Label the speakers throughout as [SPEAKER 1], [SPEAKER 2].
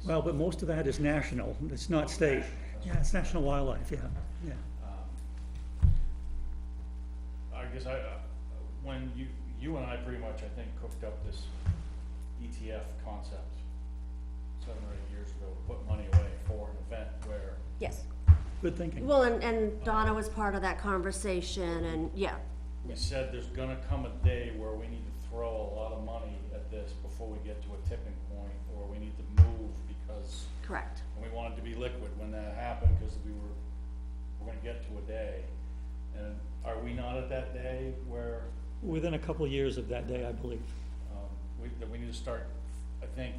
[SPEAKER 1] is.
[SPEAKER 2] Well, but most of that is national, it's not state. Yeah, it's national wildlife, yeah, yeah.
[SPEAKER 1] I guess I, uh, when you, you and I pretty much, I think, cooked up this ETF concept seven or eight years ago, to put money away for an event where
[SPEAKER 3] Yes.
[SPEAKER 2] Good thinking.
[SPEAKER 3] Well, and, and Donna was part of that conversation and, yeah,
[SPEAKER 1] we said there's gonna come a day where we need to throw a lot of money at this before we get to a tipping point, or we need to move because
[SPEAKER 3] correct.
[SPEAKER 1] and we wanted to be liquid when that happened, because we were, we're gonna get to a day. And are we not at that day where,
[SPEAKER 2] Within a couple of years of that day, I believe.
[SPEAKER 1] um, we, that we need to start, I think,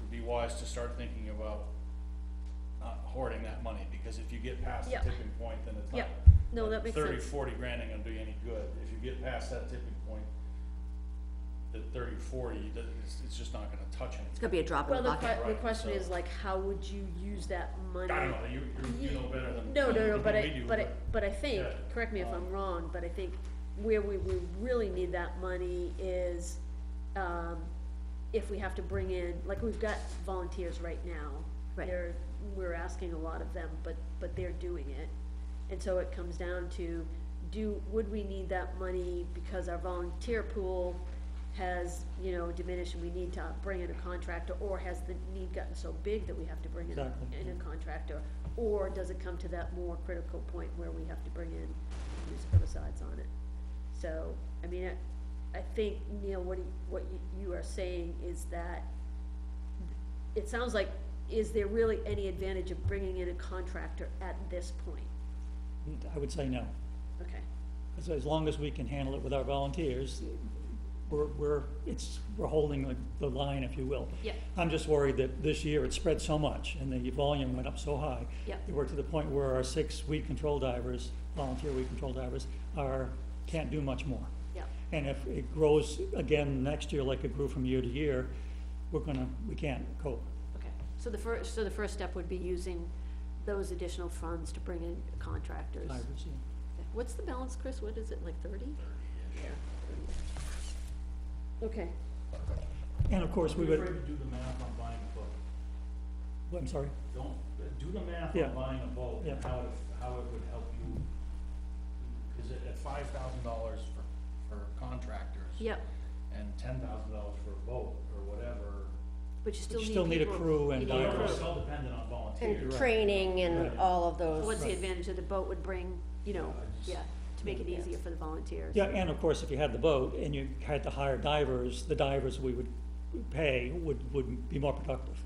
[SPEAKER 1] would be wise to start thinking about not hoarding that money, because if you get past the
[SPEAKER 3] Yep.
[SPEAKER 1] tipping point, then it's not.
[SPEAKER 3] Yep. No, that makes
[SPEAKER 1] Thirty,
[SPEAKER 3] sense.
[SPEAKER 1] forty grand ain't gonna do you any good, if you get past that tipping point, the thirty, forty, that, it's, it's just not gonna touch anything.
[SPEAKER 3] It's gonna be a drop in
[SPEAKER 4] Well,
[SPEAKER 3] the
[SPEAKER 4] the
[SPEAKER 3] bucket.
[SPEAKER 4] que- the
[SPEAKER 1] Right,
[SPEAKER 4] question
[SPEAKER 1] so-
[SPEAKER 4] is like, how would you use that money?
[SPEAKER 1] I don't know, you, you- you know better than.
[SPEAKER 4] No, no, no,
[SPEAKER 1] than
[SPEAKER 4] but
[SPEAKER 1] we
[SPEAKER 4] I,
[SPEAKER 1] do,
[SPEAKER 4] but I, but I think,
[SPEAKER 1] Yeah. Um,
[SPEAKER 4] correct me if I'm wrong, but I think where we, we really need that money is, um, if we have to bring in, like, we've got volunteers right now.
[SPEAKER 3] Right.
[SPEAKER 4] They're, we're asking a lot of them, but, but they're doing it. And so it comes down to, do, would we need that money because our volunteer pool has, you know, diminished and we need to bring in a contractor? Or has the need gotten so big that we have to bring in, a-
[SPEAKER 2] Exactly.
[SPEAKER 4] in a contractor? Or does it come to that more critical point where we have to bring in use herbicides on it? So, I mean, I, I think, Neil, what, he- what you, you are saying is that it sounds like, is there really any advantage of bringing in a contractor at this point?
[SPEAKER 2] I would say no.
[SPEAKER 4] Okay,
[SPEAKER 2] As, as long as we can handle it with our volunteers, we're, we're, it's, we're holding the, the line, if you will.
[SPEAKER 4] Yep.
[SPEAKER 2] I'm just worried that this year it spread so much and the volume went up so high.
[SPEAKER 4] Yep.
[SPEAKER 2] That we're to the point where our six weed control divers, volunteer weed control divers, are, can't do much more.
[SPEAKER 4] yeah,
[SPEAKER 2] And if it grows again next year like it grew from year to year, we're gonna, we can't cope.
[SPEAKER 4] okay. So the first, so the first step would be using those additional funds to bring in contractors.
[SPEAKER 2] Divers, yeah.
[SPEAKER 4] What's the balance, Chris? What is it, like thirty? Okay,
[SPEAKER 2] And of course, we
[SPEAKER 1] Don't be
[SPEAKER 2] would,
[SPEAKER 1] afraid to do the math on buying a boat.
[SPEAKER 2] I'm sorry,
[SPEAKER 1] Don't, do the math
[SPEAKER 2] Yeah.
[SPEAKER 1] on buying a boat and
[SPEAKER 2] Yeah.
[SPEAKER 1] how it, how it would help you. Cause at, at five thousand dollars for, for contractors.
[SPEAKER 4] yep,
[SPEAKER 1] And ten thousand dollars for a boat or whatever.
[SPEAKER 4] but you still
[SPEAKER 2] you
[SPEAKER 4] need
[SPEAKER 2] still need a
[SPEAKER 4] people-
[SPEAKER 2] crew and
[SPEAKER 4] you need a
[SPEAKER 1] Well,
[SPEAKER 2] divers.
[SPEAKER 4] crew.
[SPEAKER 1] We're so dependent on volunteers.
[SPEAKER 3] And training and
[SPEAKER 2] Right.
[SPEAKER 3] all of
[SPEAKER 4] So
[SPEAKER 3] those.
[SPEAKER 4] What's the advantage that the boat would bring, you know, yeah, to make it easier for the volunteers?
[SPEAKER 2] Yeah, and of course, if you had the boat and you had to hire divers, the divers we would pay would, would be more productive.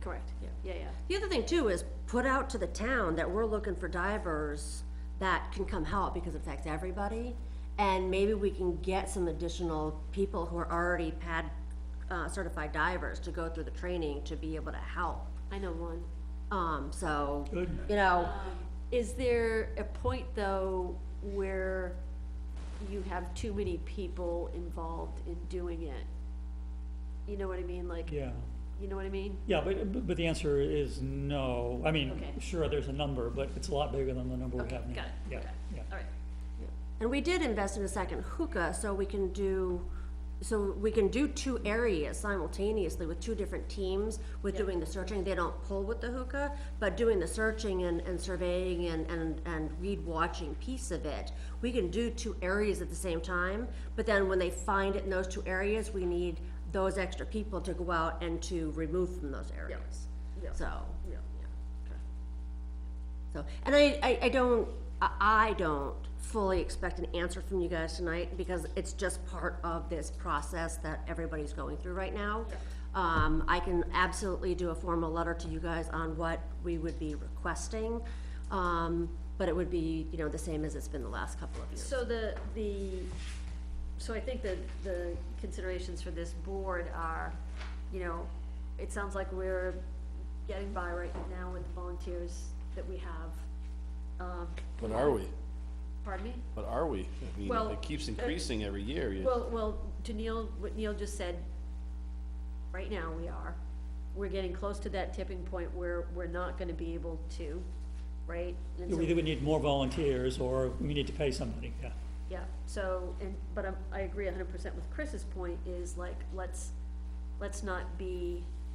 [SPEAKER 4] Correct, yeah, yeah, yeah.
[SPEAKER 3] The other thing too is put out to the town that we're looking for divers that can come help because it affects everybody. And maybe we can get some additional people who are already pad, uh, certified divers to go through the training to be able to help.
[SPEAKER 4] I know one.
[SPEAKER 3] Um, so,
[SPEAKER 2] Good.
[SPEAKER 3] you know,
[SPEAKER 4] Um, Is there a point, though, where you have too many people involved in doing it? You know what I mean, like,
[SPEAKER 2] Yeah,
[SPEAKER 4] you know what I mean?
[SPEAKER 2] yeah, but, but the answer is no. I mean,
[SPEAKER 4] Okay.
[SPEAKER 2] sure, there's a number, but it's a lot bigger than the number we
[SPEAKER 4] Okay,
[SPEAKER 2] have now.
[SPEAKER 4] got it,
[SPEAKER 2] Yeah,
[SPEAKER 4] okay.
[SPEAKER 2] yeah.
[SPEAKER 4] All right,
[SPEAKER 3] and we did invest in a second hookah, so we can do, so we can do two areas simultaneously with two different teams with doing the searching. They don't pull with the hookah, but doing the searching and, and surveying and, and, and read watching piece of it, we can do two areas at the same time, but then when they find it in those two areas, we need those extra people to go out and to remove from those areas.
[SPEAKER 4] yeah.
[SPEAKER 3] So,
[SPEAKER 4] yeah,
[SPEAKER 3] yeah.
[SPEAKER 4] okay.
[SPEAKER 3] So, and I, I, I don't, I, I don't fully expect an answer from you guys tonight, because it's just part of this process that everybody's going through right now. Um, I can absolutely do a formal letter to you guys on what we would be requesting, um, but it would be, you know, the same as it's been the last couple of years.
[SPEAKER 4] So the, the, so I think that the considerations for this board are, you know, it sounds like we're getting by right now with the volunteers that we have. Um,
[SPEAKER 5] But are we?
[SPEAKER 4] pardon me?
[SPEAKER 5] But are we? I mean,
[SPEAKER 4] Well,
[SPEAKER 5] it keeps
[SPEAKER 4] uh,
[SPEAKER 5] increasing every year. You-
[SPEAKER 4] Well, well, to Neil, what Neil just said, right now we are. We're getting close to that tipping point where we're not gonna be able to, right? And so-
[SPEAKER 2] Either we need more volunteers or we need to pay somebody, yeah.
[SPEAKER 4] Yeah, so, and, but I'm, I agree a hundred percent with Chris's point is like, let's, let's not be